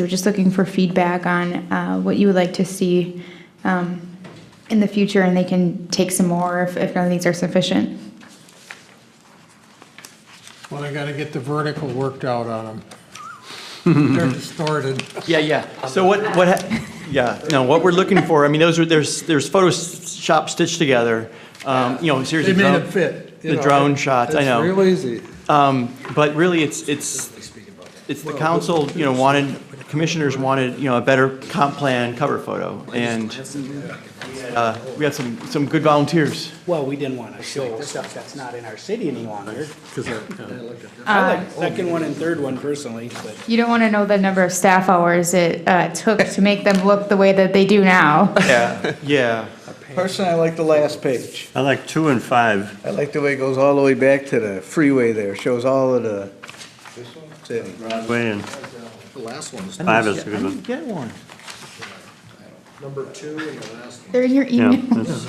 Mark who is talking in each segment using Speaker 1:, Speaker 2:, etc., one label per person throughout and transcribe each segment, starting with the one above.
Speaker 1: We're just looking for feedback on uh, what you would like to see um, in the future, and they can take some more if if none of these are sufficient.
Speaker 2: Well, I gotta get the vertical worked out on them. They're distorted.
Speaker 3: Yeah, yeah. So what, what, ha- yeah, no, what we're looking for, I mean, those are, there's, there's Photoshop stitched together. Um, you know,
Speaker 2: They
Speaker 3: seriously.
Speaker 2: made
Speaker 3: drone-
Speaker 2: it fit. you
Speaker 3: The
Speaker 2: know.
Speaker 3: drone shots, I know.
Speaker 2: It's real easy.
Speaker 3: Um, But really, it's, it's, it's the council, you know, wanted, commissioners wanted, you know, a better comp plan cover photo. And uh, we had some, some good volunteers.
Speaker 4: Well, we didn't want to show stuff that's not in our city any longer. I
Speaker 1: Uh,
Speaker 4: like the second one and third one personally, but
Speaker 1: You don't want to know the number of staff hours it uh, took to make them look the way that they do now.
Speaker 3: Yeah. Yeah.
Speaker 5: Personally, I like the last page.
Speaker 6: I like two and five.
Speaker 5: I like the way it goes all the way back to the freeway there, shows all of the city.
Speaker 6: Broadway and
Speaker 7: The last one is
Speaker 6: five is a
Speaker 3: I
Speaker 6: good one.
Speaker 3: didn't get one.
Speaker 7: number two and the last one,
Speaker 1: They're in your
Speaker 6: Yeah,
Speaker 1: email.
Speaker 6: that's-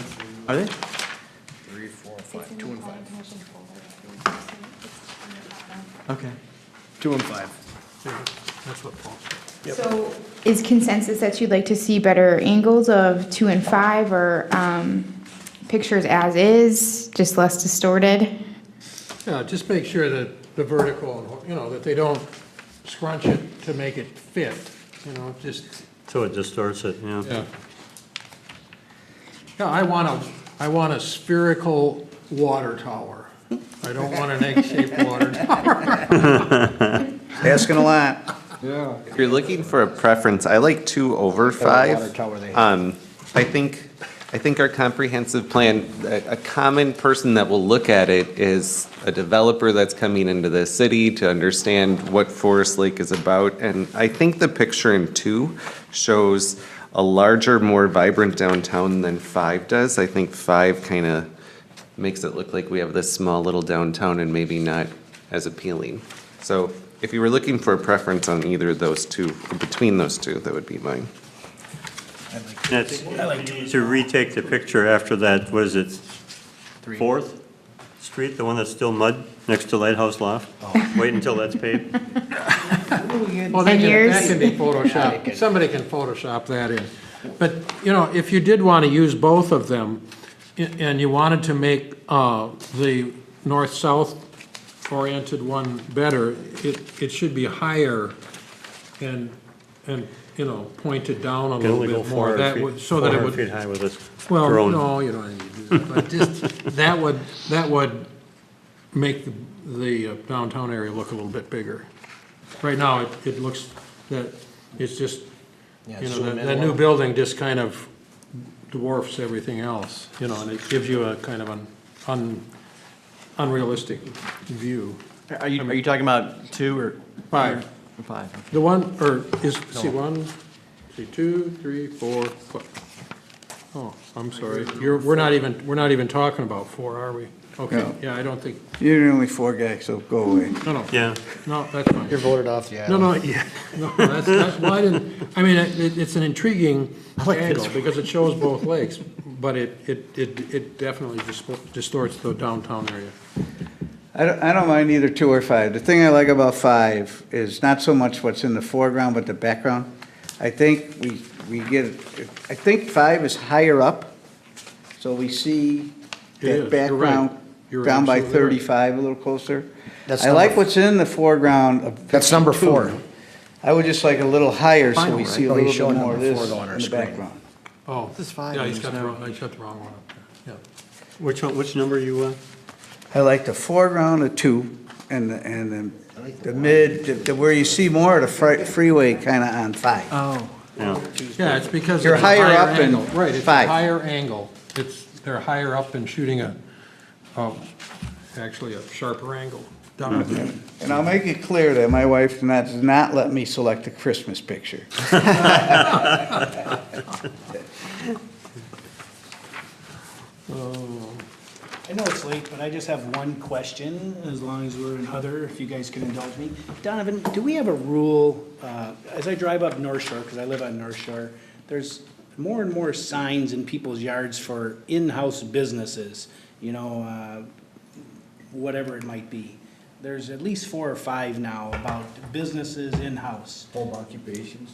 Speaker 3: Are they?
Speaker 7: three, four, five, two and five.
Speaker 3: Okay.
Speaker 5: Two and five.
Speaker 1: So is consensus that you'd like to see better angles of two and five or um, pictures as is, just less distorted?
Speaker 2: Yeah, just make sure that the vertical, you know, that they don't scrunch it to make it fit, you know, just,
Speaker 6: So it distorts it, yeah.
Speaker 2: yeah. Yeah, I want a, I want a spherical water tower. I don't want an egg-shaped water tower.
Speaker 5: Asking a lot.
Speaker 8: If you're looking for a preference, I like two over
Speaker 5: water
Speaker 8: five.
Speaker 5: tower they have.
Speaker 8: Um, I think, I think our comprehensive plan, a, a common person that will look at it is a developer that's coming into the city to understand what Forest Lake is about. And I think the picture in two shows a larger, more vibrant downtown than five does. I think five kind of makes it look like we have this small little downtown and maybe not as appealing. So if you were looking for a preference on either of those two, or between those two, that would be mine.
Speaker 6: That's, to retake the picture after that, was it Fourth Street, the one that's still mud, next to Lighthouse Loft?
Speaker 2: Oh.
Speaker 6: Wait until that's paved.
Speaker 2: Well, they
Speaker 1: Ten
Speaker 2: can-
Speaker 1: years?
Speaker 2: That can be Photoshopped, somebody can Photoshop that in. But, you know, if you did want to use both of them, a- and you wanted to make uh, the north-south oriented one better, it, it should be higher and, and, you know, pointed down a
Speaker 6: Can
Speaker 2: little
Speaker 6: only go
Speaker 2: bit more.
Speaker 6: four
Speaker 2: That
Speaker 6: hundred
Speaker 2: would
Speaker 6: feet,
Speaker 2: So
Speaker 6: four
Speaker 2: that it
Speaker 6: hundred feet
Speaker 2: would,
Speaker 6: high with this
Speaker 2: well,
Speaker 6: drone.
Speaker 2: no, you don't need to do that, but just, that would, that would make the- the uh, downtown area look a little bit bigger. Right now, it, it looks that, it's just, you know, that, that new building just kind of dwarfs everything else, you know, and it gives you a kind of an un, unrealistic view.
Speaker 3: Are you, are you talking about two or?
Speaker 2: Five.
Speaker 3: Five. okay.
Speaker 2: The one, or is, see, one, see, two, three, four, fi- Oh, I'm sorry, you're, we're not even, we're not even talking about four, are we? Okay,
Speaker 5: No.
Speaker 2: yeah, I don't think,
Speaker 5: You're the only four guy, so go away.
Speaker 2: no, no,
Speaker 6: Yeah,
Speaker 2: no, that's fine.
Speaker 7: You're voted off, yeah.
Speaker 2: No, no, yeah, no, that's, that's, well, I didn't, I mean, it, it's an intriguing angle, because it shows both lakes, but it, it, it it definitely dispo- distorts the downtown area.
Speaker 5: I don't, I don't mind either two or five. The thing I like about five is not so much what's in the foreground, but the background. I think we, we get, I think five is higher up, so we see
Speaker 2: It
Speaker 5: that
Speaker 2: is, you're right.
Speaker 5: background
Speaker 2: You're
Speaker 5: down by
Speaker 2: absolutely right.
Speaker 5: thirty-five, a little closer.
Speaker 7: That's
Speaker 5: I like
Speaker 7: number-
Speaker 5: what's in the foreground of.
Speaker 7: That's number four.
Speaker 5: 52. I would just like a little higher, so
Speaker 3: Final,
Speaker 5: we
Speaker 3: right?
Speaker 5: see a
Speaker 7: Oh, he's
Speaker 5: little
Speaker 7: showing
Speaker 5: bit more of
Speaker 7: number
Speaker 5: this
Speaker 7: four
Speaker 5: in
Speaker 7: though on our
Speaker 5: the
Speaker 7: screen.
Speaker 5: background.
Speaker 2: Oh.
Speaker 3: This is five,
Speaker 2: Yeah, he's
Speaker 3: and
Speaker 2: got the
Speaker 3: it's
Speaker 2: wrong, I shut the wrong one up there, yeah.
Speaker 6: which one, which number you, uh?
Speaker 5: I like the foreground of two and, the and then the mid, the- the, where you see more of the fri- freeway kind of on five.
Speaker 3: Oh.
Speaker 6: Yeah,
Speaker 2: Yeah, it's because.
Speaker 5: You're
Speaker 2: it's a
Speaker 5: higher up and
Speaker 2: angle. Right, it's a
Speaker 5: five.
Speaker 2: higher angle, it's, they're higher up and shooting a, um, actually a sharper angle down there.
Speaker 5: And I'll make it clear that my wife does not- does not let me select a Christmas picture.
Speaker 4: I know it's late, but I just have one question, as long as we're in other, if you guys can indulge me. Donovan, do we have a rule, uh, as I drive up North Shore, because I live on North Shore, there's more and more signs in people's yards for in-house businesses, you know, uh, whatever it might be. There's at least four or five now about businesses in-house.
Speaker 7: Home occupations.